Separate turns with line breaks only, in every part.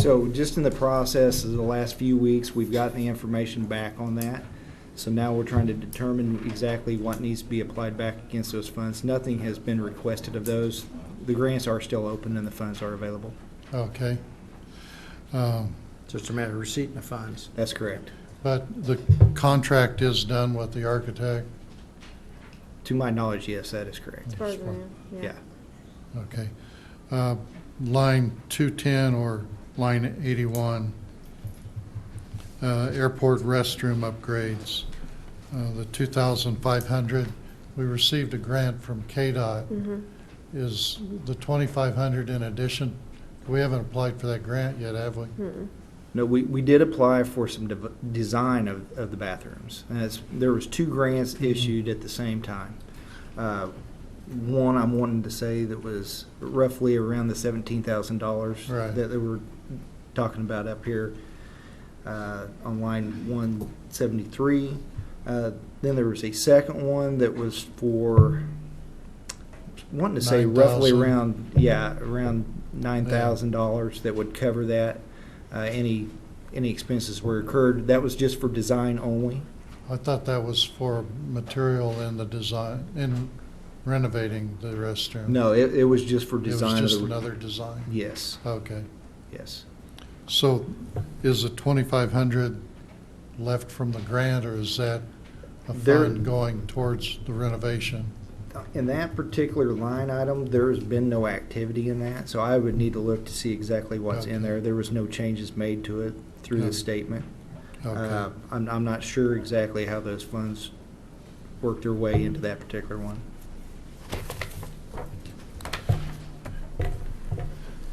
So just in the process of the last few weeks, we've gotten the information back on that. So now we're trying to determine exactly what needs to be applied back against those funds. Nothing has been requested of those. The grants are still open and the funds are available.
Okay. Um,
Just a matter of receipt and the funds.
That's correct.
But the contract is done with the architect?
To my knowledge, yes, that is correct.
Program,
Yeah.
Okay. Uh, Line 210 or line 81, uh, airport restroom upgrades, uh, the 2,500. We received a grant from KDOT.
Mhm.
Is the 2,500 in addition? We haven't applied for that grant yet, have we?
Mm-mm.
No, we, we did apply for some dev- design of, of the bathrooms. And it's, there was two grants issued at the same time. Uh, One, I'm wanting to say that was roughly around the seventeen thousand dollars
Right.
that they were talking about up here uh, on line one seventy-three. Uh, Then there was a second one that was for, wanting to say roughly
9,000.
around, yeah, around nine thousand dollars that would cover that. Uh, Any, any expenses were incurred, that was just for design only.
I thought that was for material in the design, in renovating the restroom.
No, it, it was just for
It was
design. of
just
the-
another design?
Yes,
Okay.
yes.
So is the 2,500 left from the grant, or is that a
There-
fund going towards the renovation?
In that particular line item, there's been no activity in that, so I would need to look to see exactly what's in
Okay.
there. There was no changes made to it through the
Okay.
statement. Uh,
Okay,
I'm, I'm not sure exactly how those funds worked their way into that particular one.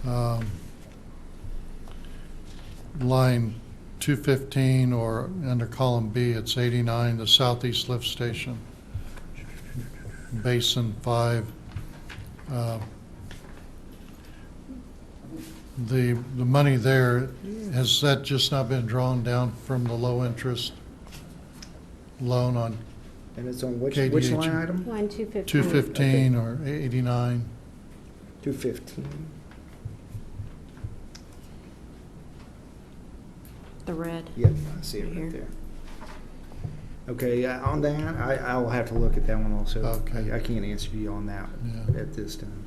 Um, Line 215, or under column B, it's 89, the southeast lift station, basin 5. Uh, The, the money there, has that just not been drawn down from the low-interest loan on
And it's on which, which
KDH.
line item?
Line 215.
215 or 89?
Two fifteen.
The red.
Yep, I see it right
Right
there.
here.
Okay, uh, on that, I, I will have to look at that one also.
Okay.
I I can't answer you on that
Yeah.
at this time.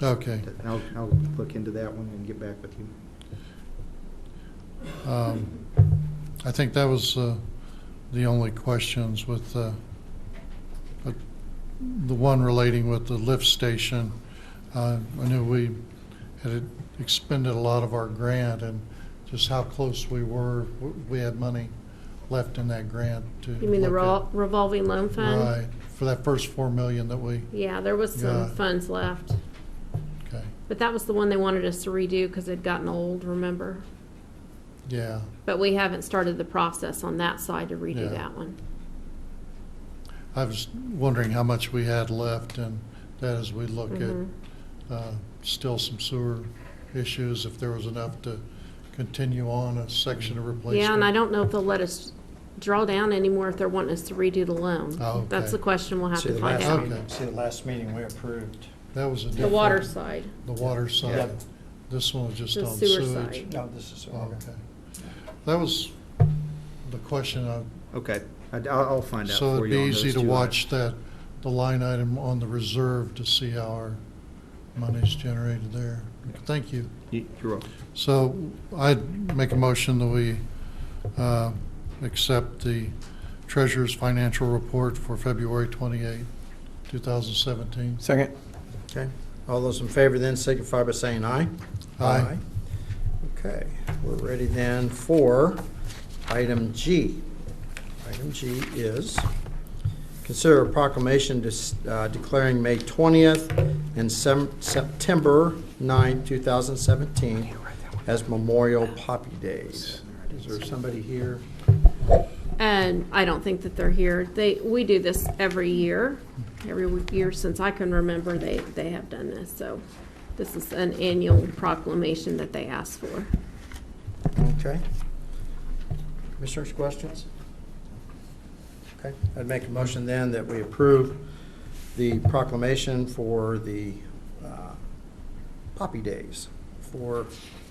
Okay.
But I'll, I'll look into that one and get back with you.
Um, I think that was uh, the only questions with, uh, but the one relating with the lift station. Uh, I knew we had expended a lot of our grant and just how close we were, W- we had money left in that grant to.
You mean the
look at-
revol- revolving loan fund?
Right, for that first four million that we,
Yeah, there was some
Yeah.
funds left,
okay,
but that was the one they wanted us to redo because it'd gotten old, remember?
yeah.
But we haven't started the process on that side to redo
Yeah.
that one.
I was wondering how much we had left and that as we look at
Mhm.
uh, still some sewer issues, if there was enough to continue on a section of replacement.
Yeah, and I don't know if they'll let us draw down anymore if they're wanting us to redo the loan.
Oh, okay.
That's the question we'll have
See
to
the
find
last
out.
Okay.
meeting- See, the last meeting we approved.
That was a
The
different.
water side,
The water side.
Yep.
This one was just
the
on
sewer
sewage.
side.
No, this is,
Okay. That was the question. I-
Okay, I, will I'll find out
So
for
it'd
you
be
on those
easy to
two
watch that, the line item on the reserve to see how our money's generated there. Thank you.
items. You- You're welcome.
So I'd make a motion that we uh, accept the treasurer's financial report for February 28, 2017.
Second. Okay. All those in favor then signify by saying aye.
Aye.
Okay, we're ready then for item G. Item G is consider a proclamation dis- uh, declaring May 20th and Sem- September 9, 2017 as Memorial Poppy Days. Is there somebody here?
And I don't think that they're here. They, we do this every year, every year since I can remember, they, they have done this. So this is an annual proclamation that they ask for.
Okay. Commissioners, questions? Okay, I'd make a motion then that we approve the proclamation for the uh, Poppy Days for